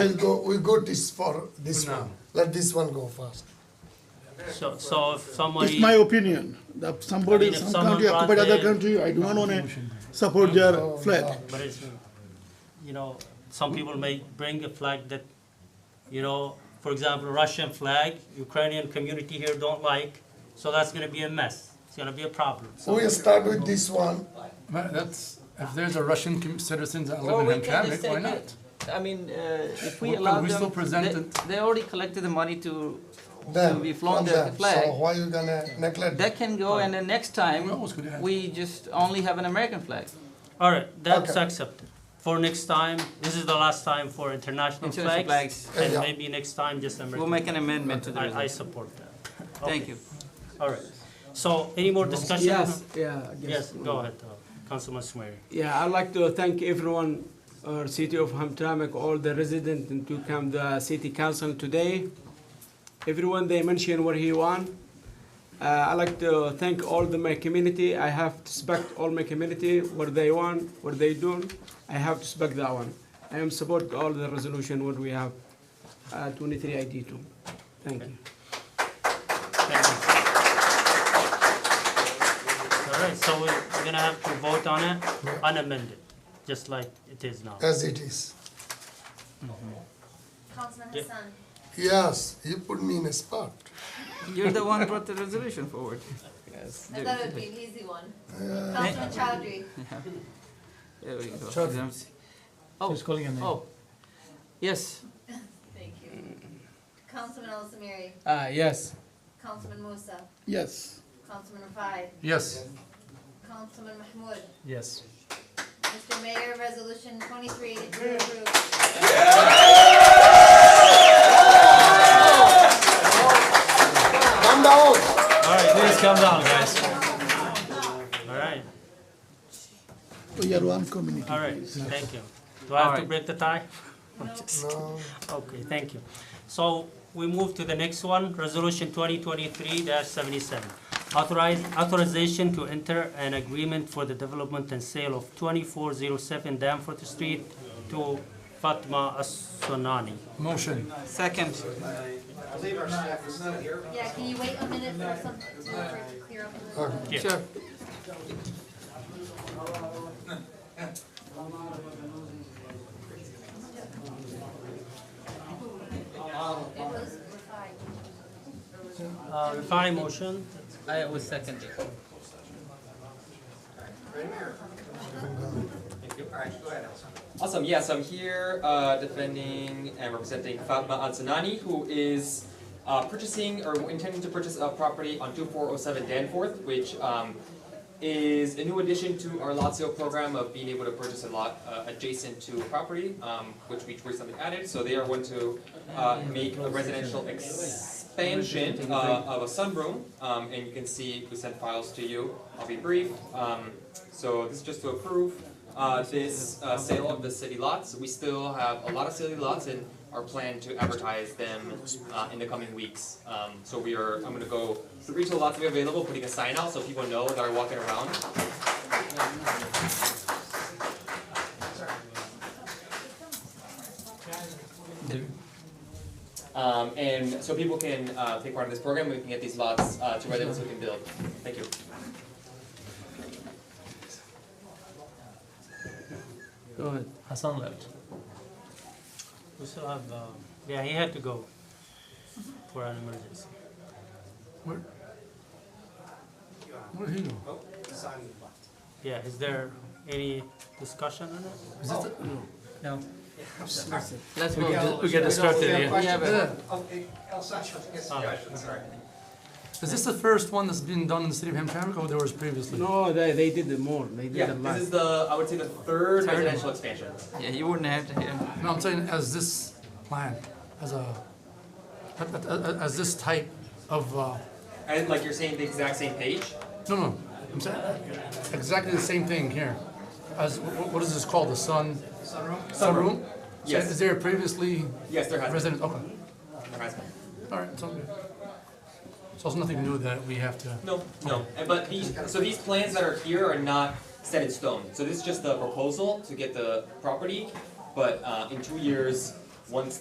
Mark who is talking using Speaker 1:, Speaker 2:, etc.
Speaker 1: We'll go, we go this for this one. Let this one go first.
Speaker 2: So, so if somebody,
Speaker 3: It's my opinion, that
Speaker 2: I
Speaker 3: somebody,
Speaker 2: mean, if
Speaker 3: some
Speaker 2: someone
Speaker 3: country
Speaker 2: brought
Speaker 3: occupied other
Speaker 2: their-
Speaker 3: country, I do not wanna support their flag.
Speaker 2: but it's, you know, some people may bring a flag that, you know, for example, Russian flag, Ukrainian community here don't like, so that's gonna be a mess. It's gonna be a problem.
Speaker 1: We'll start with this one.
Speaker 4: Ma- That's, if there's a Russian com- citizens that
Speaker 5: Well,
Speaker 4: live
Speaker 5: we
Speaker 4: in
Speaker 5: can
Speaker 4: Hamtramck,
Speaker 5: just
Speaker 4: why
Speaker 5: take
Speaker 4: not?
Speaker 5: it. I mean, uh, if we
Speaker 4: Well,
Speaker 5: allow
Speaker 4: we
Speaker 5: them,
Speaker 4: still present
Speaker 5: they-
Speaker 4: it.
Speaker 5: they already collected the money to,
Speaker 1: Then,
Speaker 5: we flaunt
Speaker 1: from
Speaker 5: the
Speaker 1: them.
Speaker 5: flag.
Speaker 1: So why you gonna neglect?
Speaker 5: that can go and the next time,
Speaker 4: We always could have.
Speaker 5: we just only have an American flag.
Speaker 2: All right, that's
Speaker 1: Okay.
Speaker 2: accepted. For next time, this is the last time for international
Speaker 5: International
Speaker 2: flags,
Speaker 5: flags.
Speaker 2: and
Speaker 1: Yeah.
Speaker 2: maybe next time just
Speaker 5: We'll
Speaker 2: American.
Speaker 5: make an amendment to the
Speaker 2: I, I
Speaker 5: resolution.
Speaker 2: support that.
Speaker 5: Thank you.
Speaker 2: All right. So any more discussion?
Speaker 6: Yes, yeah, I guess.
Speaker 2: Yes, go ahead, uh, Councilman Swery.
Speaker 6: Yeah, I'd like to thank everyone, uh, City of Hamtramck, all the residents, and to come the city council today. Everyone, they mention what he want. Uh, I'd like to thank all the my community. I have to respect all my community, what they want, what they do. I have to respect that one. I am support all the resolution what we have, uh, twenty-three ID two. Thank you.
Speaker 2: Thank you. All right, so we're we're gonna have to vote on it unamended, just like it is now.
Speaker 1: As it is.
Speaker 7: Councilman
Speaker 2: Yeah.
Speaker 7: Hassan.
Speaker 1: Yes, you put me in a spot.
Speaker 5: You're the one brought the resolution forward. Yes.
Speaker 7: I
Speaker 5: There
Speaker 7: thought it would be an easy one.
Speaker 1: Yeah.
Speaker 7: Councilman Chowdhury.
Speaker 5: there we go. Oh, oh. Yes,
Speaker 7: Thank you. Councilman Al Samiri.
Speaker 6: Uh, yes.
Speaker 7: Councilman Musa.
Speaker 3: Yes,
Speaker 7: Councilman Rafai.
Speaker 4: Yes,
Speaker 7: Councilman Mahmoud.
Speaker 6: Yes.
Speaker 7: Mr. Mayor, Resolution 2382 approved.
Speaker 1: Come down.
Speaker 2: All right, please come down, guys. All right,
Speaker 3: we are one community.
Speaker 2: all right, thank you. Do I have to
Speaker 5: Alright.
Speaker 2: break the tie?
Speaker 1: No.
Speaker 2: Okay, thank you. So we move to the next one, Resolution 2023-77. Authorize, authorization to enter an agreement for the development and sale of 2407 Danforth Street to Fatma As-Sunani.
Speaker 4: motion.
Speaker 5: second.
Speaker 7: Yeah, can you wait a minute for some, for it to clear up a little?
Speaker 1: Okay.
Speaker 2: Yeah.
Speaker 5: Sure.
Speaker 7: It was Rafai.
Speaker 2: Uh, Refine motion?
Speaker 5: I was second.
Speaker 8: Awesome. Yes, I'm here uh, defending and representing Fatma Ansanani, who is uh, purchasing or intending to purchase a property on 2407 Danforth, which um, is a new addition to our lot sale program of being able to purchase a lot uh, adjacent to a property, um, which we recently added. So they are going to uh, make a residential expansion uh, of a sunroom, um, and you can see we sent files to you. I'll be brief. Um, so this is just to approve uh, this uh, sale of the city lots. We still have a lot of city lots and our plan to advertise them uh, in the coming weeks. Um, so we are, I'm gonna go through each of the lots we have available, putting a sign out so people know that are walking around. Um, and so people can uh, take part in this program, we can get these lots uh, to residents who can build. Thank you.
Speaker 6: Go ahead.
Speaker 2: Hassan left. We still have, uh, yeah, he had to go for an emergency.
Speaker 4: Where? Where he go?
Speaker 2: Yeah, is there any discussion on it?
Speaker 4: Is this the-
Speaker 5: No. Let's vote.
Speaker 9: We get distracted, yeah.
Speaker 5: We have
Speaker 9: uh,
Speaker 5: a-
Speaker 9: Okay, Elsa, yes,
Speaker 2: Ah.
Speaker 9: Josh, sorry.
Speaker 4: Is this the first one that's been done in the city of Hamtramck or there was previously?
Speaker 6: No, they, they did more. They did a
Speaker 8: Yeah,
Speaker 6: lot.
Speaker 8: this is the, I would say the third residential expansion.
Speaker 5: Yeah, you wouldn't have to hear.
Speaker 4: No, I'm saying as this plan, as a, a- a- a- as this type of, uh,
Speaker 8: And like you're saying the exact same page?
Speaker 4: no, no, I'm saying exactly the same thing here. As, wh- wh- what is this called, the sun? Sunroom? Sunroom? So
Speaker 8: Yes.
Speaker 4: Is there previously
Speaker 8: Yes, there has been.
Speaker 4: resident, okay,
Speaker 8: There has been.
Speaker 4: all right, it's all good. So it's nothing new that we have to.
Speaker 8: No, no. And- But these, so these plans that are here are not set in stone. So this is just the proposal to get the property. But uh, in two years, once